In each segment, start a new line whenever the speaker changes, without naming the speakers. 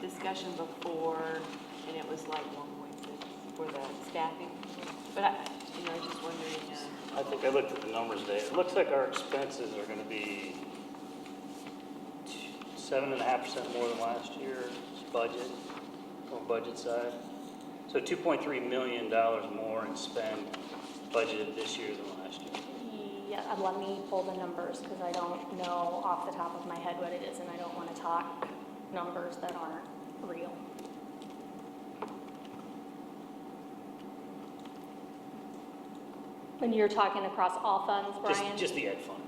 discussion before, and it was like one point six for the staffing. But I, you know, I was just wondering, uh,
I think I looked at the numbers there. It looks like our expenses are gonna be seven and a half percent more than last year's budget, on budget side. So two point three million dollars more in spend budgeted this year than last year.
Yeah, uh, let me pull the numbers because I don't know off the top of my head what it is and I don't want to talk numbers that aren't real. And you're talking across all funds,
Just,
Brian?
just the ed fund.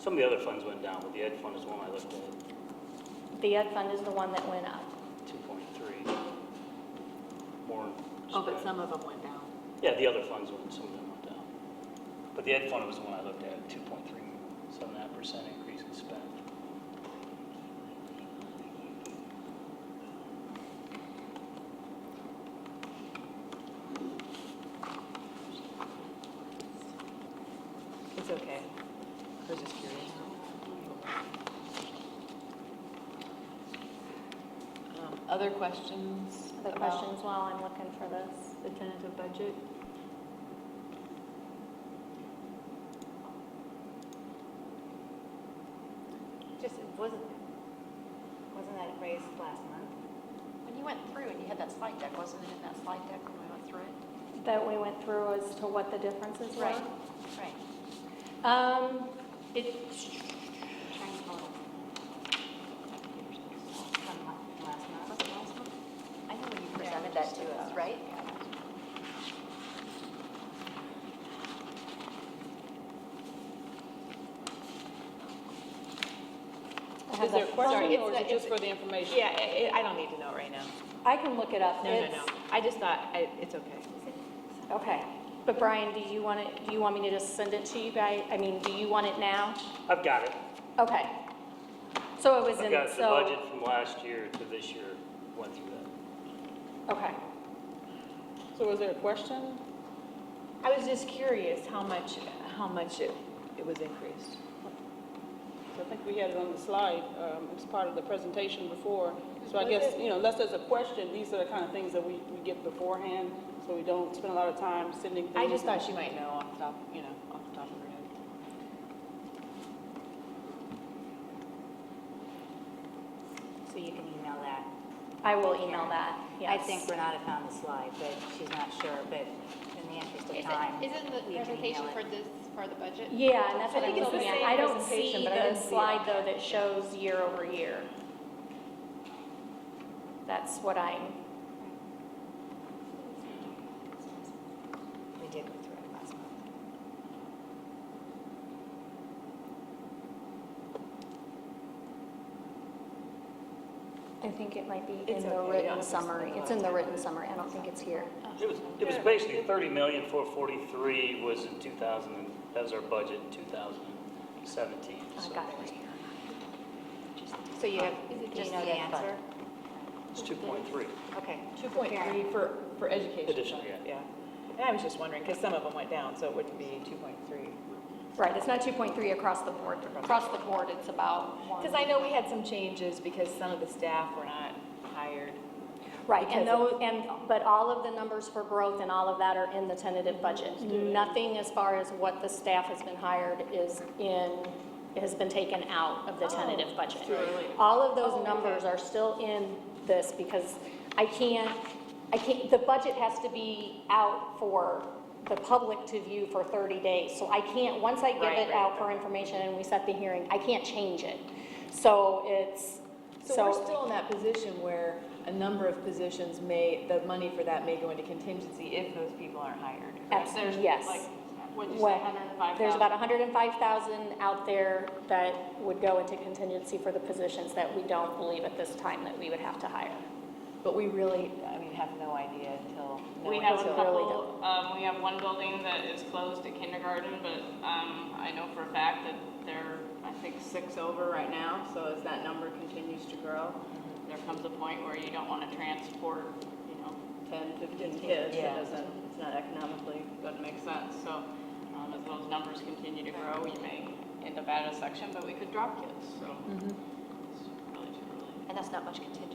Some of the other funds went down, but the ed fund is one I looked at,
The ed fund is the one that went up.
two point three. More.
oh, but
spend.
some of them went down.
Yeah, the other funds went, some of them went down. But the ed fund was the one I looked at, two point three, seven and a half percent increase in spend.
It's okay. I was just curious. Um, Other questions?
The
about
questions while I'm looking for this.
The tentative budget?
Just, it wasn't, wasn't that raised last month? When you went through and you had that slide deck, wasn't it in that slide deck when we went through it?
That we went through as to what the differences were.
Right.
Um, it,
Trying to hold it. From la- last month. Was it last month? I know when you presented that to us, right?
I have
Is there a
that-
question,
Sorry,
or is
it's-
it just for the information?
Yeah, I, I- I don't need to know right now.
I can look it up.
No, no,
It's-
no. I just thought, I, it's okay.
Okay, but Brian, do you want it, do you want me to just send it to you guys? I mean, do you want it now?
I've got it.
Okay. So it was
I've
in,
got the
so,
budget from last year to this year, went through that.
okay.
So was there a question?
I was just curious how much, how much it, it was increased.
I think we had it on the slide, um, it's part of the presentation before. So I
Was
guess,
it?
you know, unless there's a question, these are the kind of things that we, we get beforehand, so we don't spend a lot of time sending things.
I just thought you might know off the top, you know, off the top of your head.
So you can email that.
I will email that,
I
yes.
think Renata found the slide, but she's not sure, but in the interest of
Is
time.
it, isn't the
we can
presentation
email
for
it.
this, for the budget?
Yeah, and that's what
I
I'm
think it's the
looking at.
same
I don't
presentation,
see
but I
the
didn't see it.
slide though that shows year over year. That's what I'm,
We did go through it last month.
I think it might be in
It's okay, you
the
don't
written
have to spend
summary.
a lot
It's
of
in the
time
written
on it.
summary. I don't think it's here.
It was, it was basically thirty million, four forty-three was in two thousand, and that was our budget in two thousand and seventeen.
I got it right here.
So you have,
Is it
do you
just
know the
the end
answer?
It's two point three.
Okay.
Two point three for, for education.
Additional, yeah.
Yeah. And I was just wondering, because some of them went down, so it wouldn't be two point three.
Right, it's not 2.3 across the board. Across the board, it's about one.
Because I know we had some changes because some of the staff were not hired.
Right, and
Because
those, and, but all of the numbers for growth and all of that are in the tentative budget. Nothing as far as what the staff has been hired is in, has been taken out of the tentative budget. All of those numbers are still in this because I can't, I can't, the budget has to be out for the public to view for 30 days. So I can't, once I give
Right,
it
right,
out for information and we set the hearing, I can't change it. So it's,
So we're still in that position where a number of positions may, the money for that may go into contingency if those people aren't hired.
Abs-
There's
yes.
like, what'd you say,
What-
105,000?
There's about 105,000 out there that would go into contingency for the positions that we don't believe at this time that we would have to hire.
But we really, I mean, have no idea until. no
We
one
have a
until-
couple, um, we have one building that is closed at kindergarten, but, um, I know for a fact that they're, I think, six over right now, so as that number continues to grow, there comes a point where you don't wanna transport, you know, ten, fifteen kids, it
Yeah.
doesn't, it's not economically, doesn't make sense, so, um, as those numbers continue to grow, you may end up out of section, but we could drop kids, so. It's really too early.
And that's not much contingency